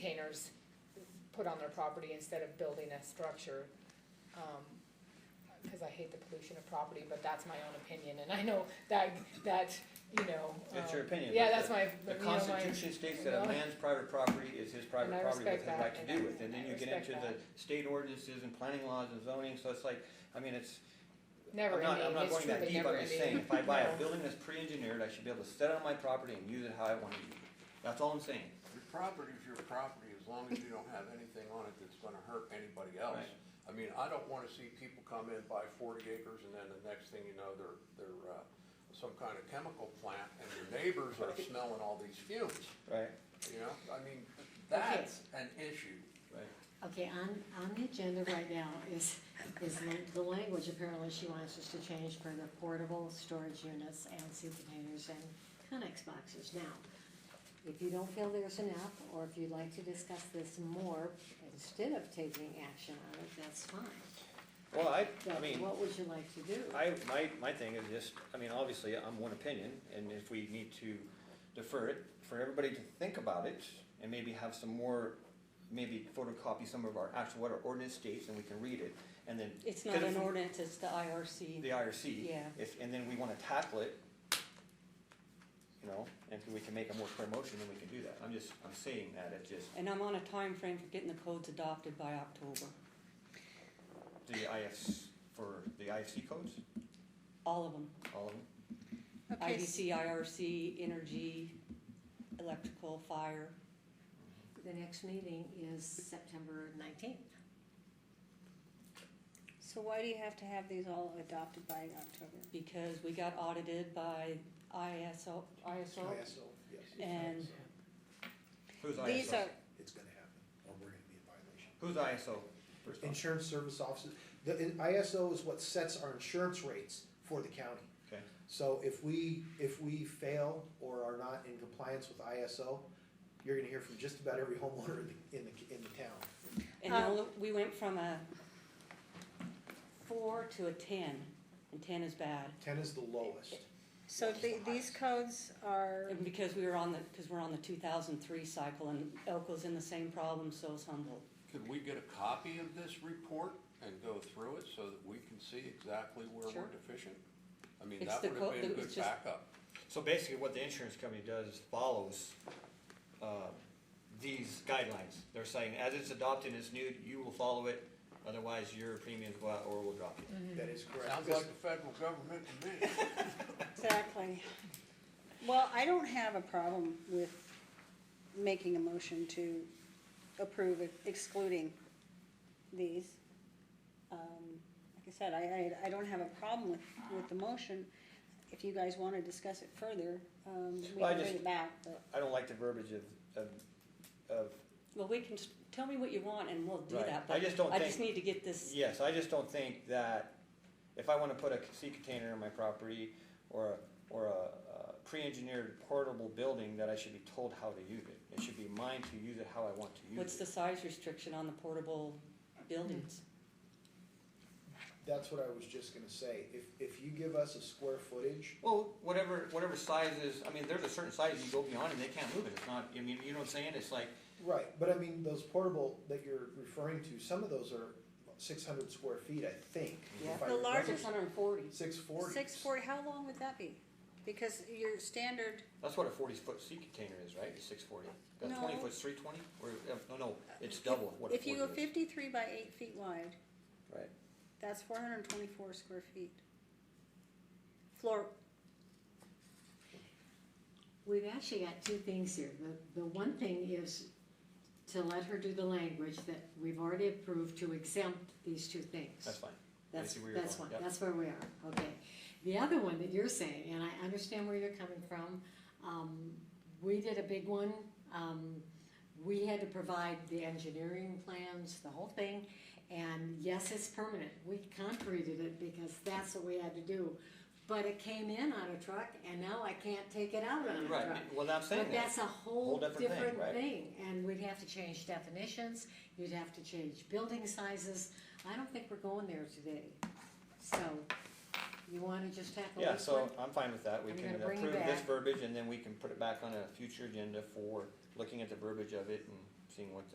owners put on their property instead of building a structure. Um, cause I hate the pollution of property, but that's my own opinion, and I know that, that, you know. That's your um, opinion, Yeah, but that's my, The you know, my, Constitution states that you a know. man's private property is his And private I property with his respect that, right to and do I- with, and then I you get respect into the state ordinances and planning laws and zoning, so it's like, I mean, it's, never I'm ending, not, I'm not it's going that truly deep, never I'm just saying, ending. if I buy No. a building that's pre-engineered, I should be able to set it on my property and use it how I wanna use it. That's all I'm saying. Your property's your property, as long as you don't have anything on it that's gonna hurt anybody else. Right. I mean, I don't wanna see people come in, buy forty acres, and then the next thing you know, they're, they're, uh, some kind of chemical plant, and your neighbors are smelling all these fumes, Right. you know? I mean, that's an issue. Right. Okay, on, on the agenda right now is, is the- the language apparently she wants us to change for the portable storage units and sealed containers and Connex boxes. Now, if you don't feel there's enough, or if you'd like to discuss this more instead of taking action on it, that's fine. Well, I, I But mean. what would you like to do? I, my, my thing is just, I mean, obviously, I'm one opinion, and if we need to defer it, for everybody to think about it, and maybe have some more, maybe photocopy some of our actual, what our ordinance states, and we can read it, and then. It's not 'cause an if we- ordinance, it's the IRC. The IRC. Yeah. If, and then we wanna tackle it, you know, and if we can make a more clear motion, then we can do that, I'm just, I'm saying that, it's just, And I'm on a time frame for getting the codes adopted by October, the IFs, for the IFC codes, all of them. all of them, Okay, s- IBC, IRC, energy, electrical, fire. The next meeting is September nineteenth. so why do you have to have these all adopted by October? because we got audited by ISO, ISO, and who's These ISO, are, it's gonna happen, or we're gonna be in violation. who's ISO, first off, Insurance service offices, the in- ISO is what sets our insurance rates for the county. okay, So if we, if we fail or are not in compliance with ISO, you're gonna hear from just about every homeowner in the, in the, in the town. and Um, now we went from a four to a ten, and ten is bad. Ten is the lowest. so the, these codes are, And because we were on the, because we're on the two thousand three cycle, and Elko's in the same problem, so is Humboldt. Could we get a copy of this report and go through it so that we can see exactly where Sure. we're deficient? I mean, It's that the would co- have been the- it's good just- backup. So basically, what the insurance company does is follows uh, these guidelines. They're saying, as it's adopted, it's new, you will follow it, otherwise your premiums go out or we'll drop you. That is correct. Sounds like the federal government to me. exactly. Well, I don't have a problem with making a motion to approve it, excluding these. Um, Like I said, I, I, I don't have a problem with, with the motion. If you guys wanna discuss it further, um, we Well, I can bring just- it back, but I don't like the verbiage of, of, of, Well, we can, s- tell me what you want and we'll do Right. that, I but just don't I just think- need to get this, yes, I just don't think that if I wanna put a sea container on my property or, a- or a uh, pre-engineered portable building, that I should be told how to use it. It should be mine to use it how I want to use it. what's the size restriction on the portable buildings? That's what I was just gonna say, if, if you give us a square footage, Well, whatever, whatever size is, I mean, there's a certain size you go beyond and they can't move it, it's not, I mean, you know what I'm saying, it's like, right, but I mean, those portable that you're referring to, some of those are six hundred square feet, I think. if Yeah. I The remember. largest Six hundred and forty. Six forty. six forty, how long would that be? Because your standard that's what a forty foot sea container is, right, it's six forty. That No. twenty foot's three twenty, or, uh, no, no, it's double what a If you go forty is. fifty-three by eight feet wide, Right, that's four hundred and twenty-four square feet. Floor, We've actually got two things here. The, the one thing is to let her do the language that we've already approved to exempt these two things. that's fine. I That's, see where you're that's one, going, yep. that's where we are, okay. The other one that you're saying, and I understand where you're coming from, um, we did a big one. Um, we had to provide the engineering plans, the whole thing, and yes, it's permanent. We concreted it because that's what we had to do. But it came in on a truck and now I can't take it out on a truck. Right, well, I'm saying But that, that's a whole different thing, different right. thing, and we'd have to change definitions, you'd have to change building sizes, I don't think we're going there today. So, you wanna just tackle yeah, this one? so I'm fine with that, we I'm can gonna bring approve this back- verbiage and then we can put it back on a future agenda for looking at the verbiage of it and seeing what